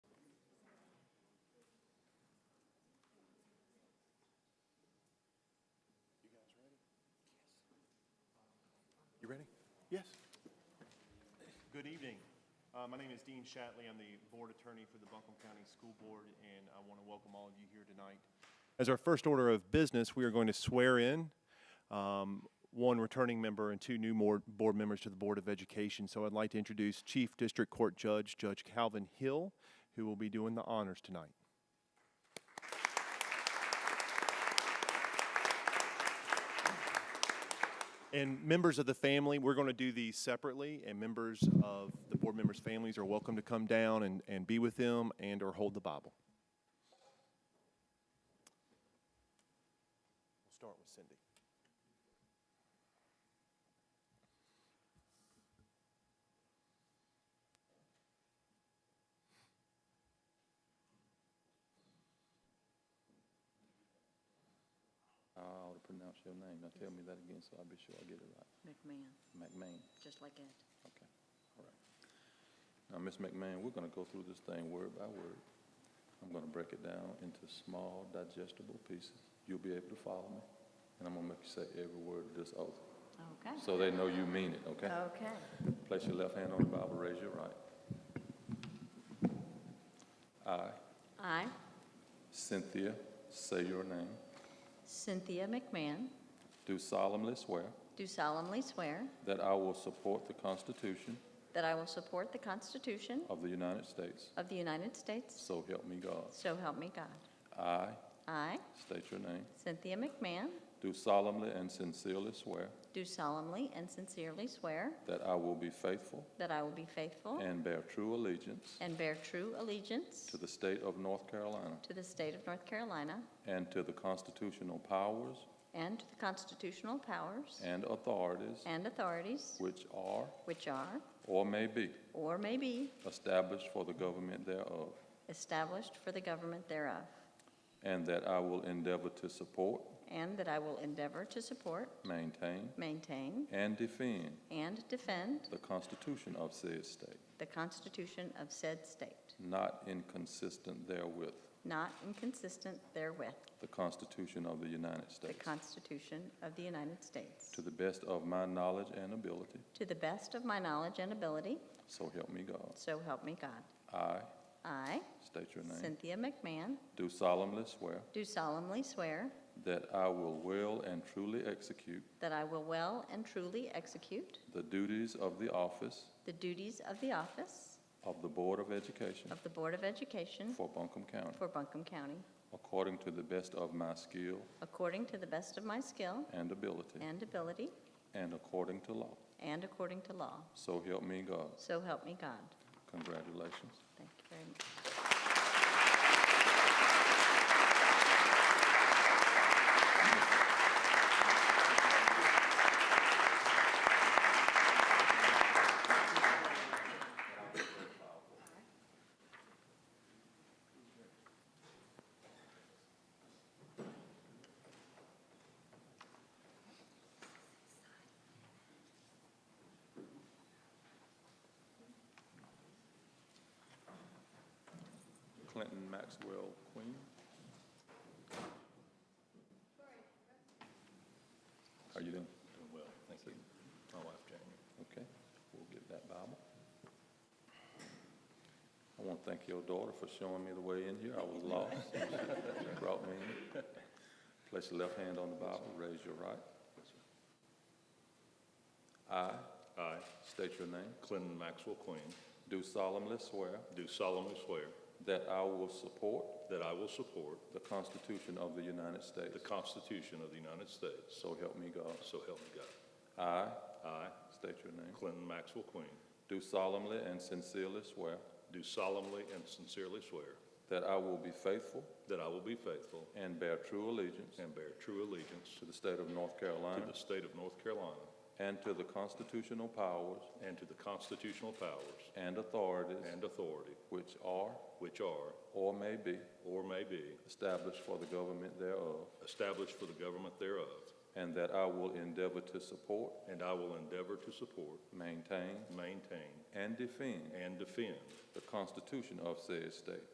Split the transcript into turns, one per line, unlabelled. Yes. Good evening. Uh, My name is Dean Shatley. I'm the board attorney for the Buncombe County School Board, and I want to welcome all of you here tonight. As our first order of business, we are going to swear in um, one returning member and two new more- board members to the Board of Education. So I'd like to introduce Chief District Court Judge Judge Calvin Hill, who will be doing the honors tonight. And members of the family, we're going to do these separately, and members of the board members' families are welcome to come down and, and be with them and/or hold the Bible. We'll start with Cindy.
I ought to pronounce your name. Now tell me that again so I'll be sure I get it right.
McMahon,
McMahon,
just like Ed.
okay, all right. Now, Ms. McMahon, we're gonna go through this thing word by word. I'm gonna break it down into small digestible pieces. You'll be able to follow me. And I'm gonna make you say every word of this oath,
Okay.
so they know you mean it, okay?
Okay.
Place your left hand on the Bible, raise your right. I,
I,
Cynthia, say your name,
Cynthia McMahon,
do solemnly swear
do solemnly swear
that I will support the Constitution
that I will support the Constitution
of the United States
of the United States,
So help me God.
so help me God.
I,
I,
state your name,
Cynthia McMahon,
do solemnly and sincerely swear
do solemnly and sincerely swear
that I will be faithful
that I will be faithful
and bear true allegiance
and bear true allegiance
to the state of North Carolina
to the state of North Carolina
and to the constitutional powers
and to the constitutional powers
and authorities
and authorities
which are
which are
or may be
or may be
established for the government thereof,
established for the government thereof,
and that I will endeavor to support,
and that I will endeavor to support
maintain,
Maintain
and defend
and defend
the Constitution of said state,
the Constitution of said state,
not inconsistent therewith,
not inconsistent therewith,
the Constitution of the United
the
States.
Constitution of the United States,
To the best of my knowledge and ability,
to the best of my knowledge and ability,
so help me God.
so help me God.
I,
I,
state your name,
Cynthia McMahon,
do solemnly swear
do solemnly swear
that I will well and truly execute
that I will well and truly execute
the duties of the office
the duties of the office
of the Board of Education
of the Board of Education
for Buncombe County,
for Buncombe County,
according to the best of my skill
according to the best of my skill
and ability,
and ability,
and according to law,
and according to law,
so help me God.
so help me God.
Congratulations.
Thank you very much.
Clinton Maxwell Queen. How you doing? Doing well, thank you. My wife Jamie. Okay, we'll give that Bible. I want to thank your daughter for showing me the way in here. I was lost. She brought me in. Place your left hand on the Bible, raise your right. I
I,
state your name.
Clinton Maxwell Queen,
Do solemnly swear
do solemnly swear
that I will support
that I will support
the Constitution of the United States.
the Constitution of the United States,
So help me God.
so help me God.
I,
I,
state your name,
Clinton Maxwell Queen,
do solemnly and sincerely swear
do solemnly and sincerely swear
that I will be faithful
that I will be faithful
and bear true allegiance
and bear true allegiance
to the state of North
to
Carolina
the state of North Carolina
and to the constitutional powers
and to the constitutional powers
and authorities
and authority
which are
which are
or may be
or may be
established for the government thereof,
established for the government thereof,
and that I will endeavor to support,
and I will endeavor to support,
maintain,
maintain,
and defend
and defend
the Constitution of said state,